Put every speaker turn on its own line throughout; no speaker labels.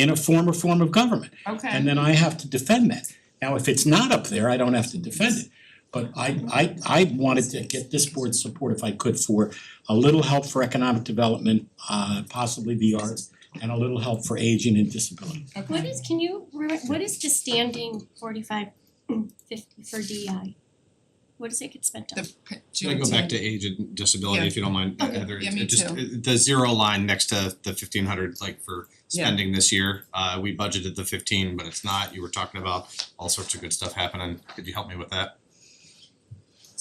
in a former form of government. And
Okay,
then I have to defend that. Now, if it's not up there, I don't have to defend it. But I I I wanted to get this board's support if I could for a little help for economic development, uh possibly the arts, and a little help for aging and disability.
What
okay.
is, can you, re- what is the standing forty-five fifty for DEI? What does it get spent on?
The p-
Should I go back
Juneteenth.
to age and disability, if you don't mind,
Okay.
Heather?
Yeah,
It-
me
it just-
too.
it- The zero line next to the fifteen hundred, like for
Yeah.
spending this year, uh we budgeted the fifteen, but it's not, you were talking about all sorts of good stuff happening, could you help me with that?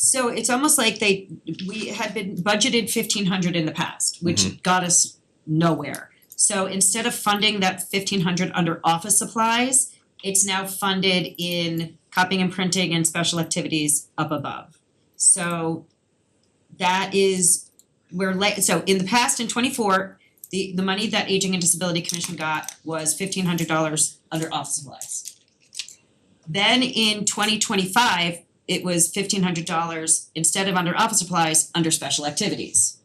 So it's almost like they, we had been budgeted fifteen hundred in the past, which got us nowhere. So instead of funding that fifteen hundred under office supplies, it's now funded in copying and printing and special activities up above. So that is, we're like, so in the past, in twenty-four, the the money that Aging and Disability Commission got was fifteen hundred dollars under office supplies. Then in twenty twenty-five, it was fifteen hundred dollars instead of under office supplies, under special activities.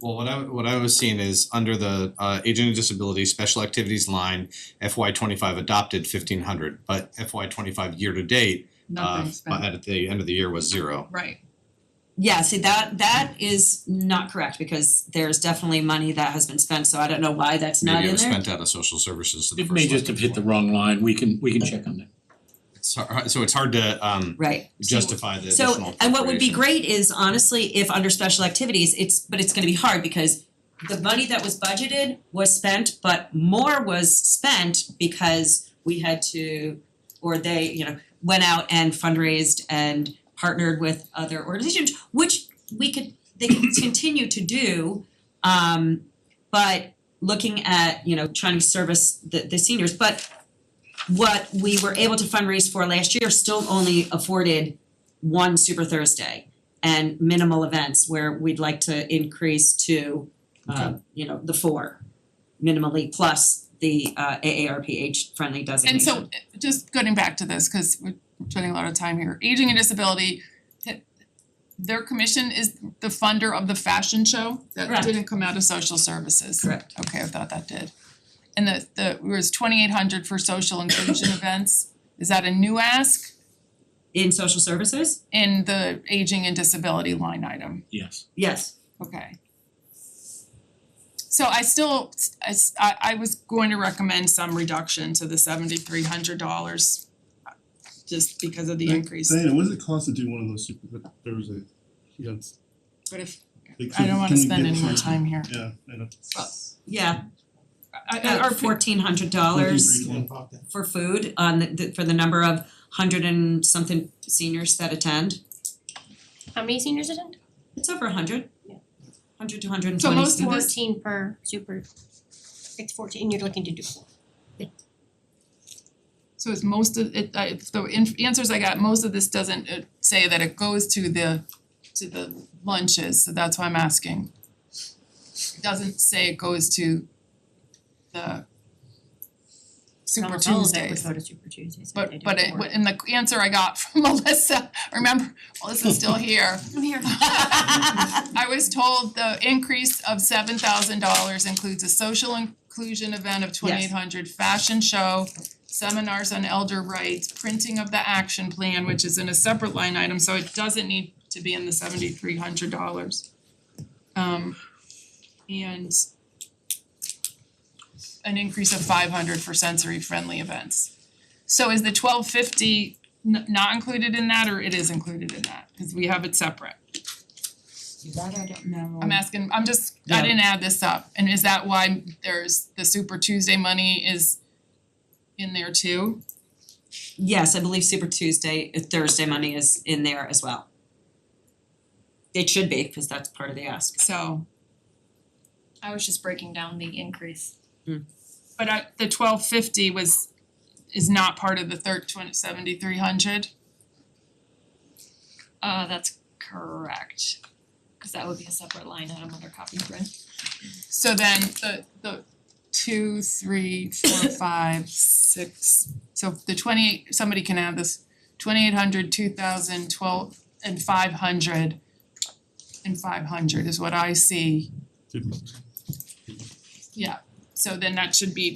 Well, what I what I was seeing is under the uh aging and disability special activities line, FY twenty five adopted fifteen hundred, but FY twenty five year to date, uh
Nothing
but
spent,
at the end of the year was zero.
right,
Yeah, see that that is not correct because there's definitely money that has been spent, so I don't know why that's not
Maybe it
in
was
there.
spent out of social services to the
It
first
may just have hit the wrong line, we can we can check on that.
So so it's hard to um
Right,
justify the additional
so and what would be
appropriation.
great is honestly if under special activities, it's but it's gonna be hard because the money that was budgeted was spent, but more was spent because we had to or they, you know, went out and fundraised and partnered with other organizations, which we could, they could continue to do. Um, but looking at, you know, trying to service the the seniors, but what we were able to fundraise for last year still only afforded one Super Thursday and minimal events where we'd like to increase to uh, you know, the four minimally plus the uh AARP age friendly designation.
and so just getting back to this, cause we're spending a lot of time here, aging and disability. th- Their commission is the funder of the fashion show that
Correct.
didn't come out of social services.
Correct.
Okay, I thought that did. And the the, it was twenty eight hundred for social inclusion events, is that a new ask
In social services?
in the aging and disability line item?
Yes.
Yes.
Okay. So I still, I s- I I was going to recommend some reduction to the seventy three hundred dollars just because of the
Right,
increase,
Diana, what does it cost to do one of those super Thursdays? You know, it's-
but if,
they
I don't
could-
wanna
can we
spend
get
any more
some-
time here.
Yeah, I know.
Yeah,
I I-
about
or for-
fourteen hundred dollars for food on the- the for the number of hundred and something seniors that attend.
How many seniors attend?
It's over a hundred.
Yeah.
Hundred to hundred and
So
twenty
most of
students.
this-
Fourteen per super, it's fourteen, and you're looking to do four.
so it's most of it, I if the inf- answers I got, most of this doesn't uh, say that it goes to the to the lunches, so that's why I'm asking. It doesn't say it goes to the Super Tuesdays.
Almost all of it would go to Super Tuesdays if they
But
do
but it,
four.
and the answer I got from Melissa, remember, Melissa's still here.
I'm here.
I was told the increase of seven thousand dollars includes a social inclusion event of twenty eight hundred, fashion show, seminars on elder rights, printing of the action plan, which is in a separate line item, so it doesn't need to be in the seventy three hundred dollars. Um and an increase of five hundred for sensory friendly events. So is the twelve fifty n- not included in that or it is included in that? Cause we have it separate. I'm asking, I'm just, I
Yeah.
didn't add this up, and is that why there's the Super Tuesday money is in there too?
Yes, I believe Super Tuesday, uh, Thursday money is in there as well. It should be, because that's part of the ask.
So,
I was just breaking down the increase.
but I, the twelve fifty was, is not part of the third twenty seventy three hundred?
Uh, that's correct. Cause that would be a separate line item under copy print.
So then the the two, three, four, five, six, so the twenty eight, somebody can add this, twenty eight hundred, two thousand, twelve, and five hundred. And five hundred is what I see,
Didn't-
yeah, so then that should be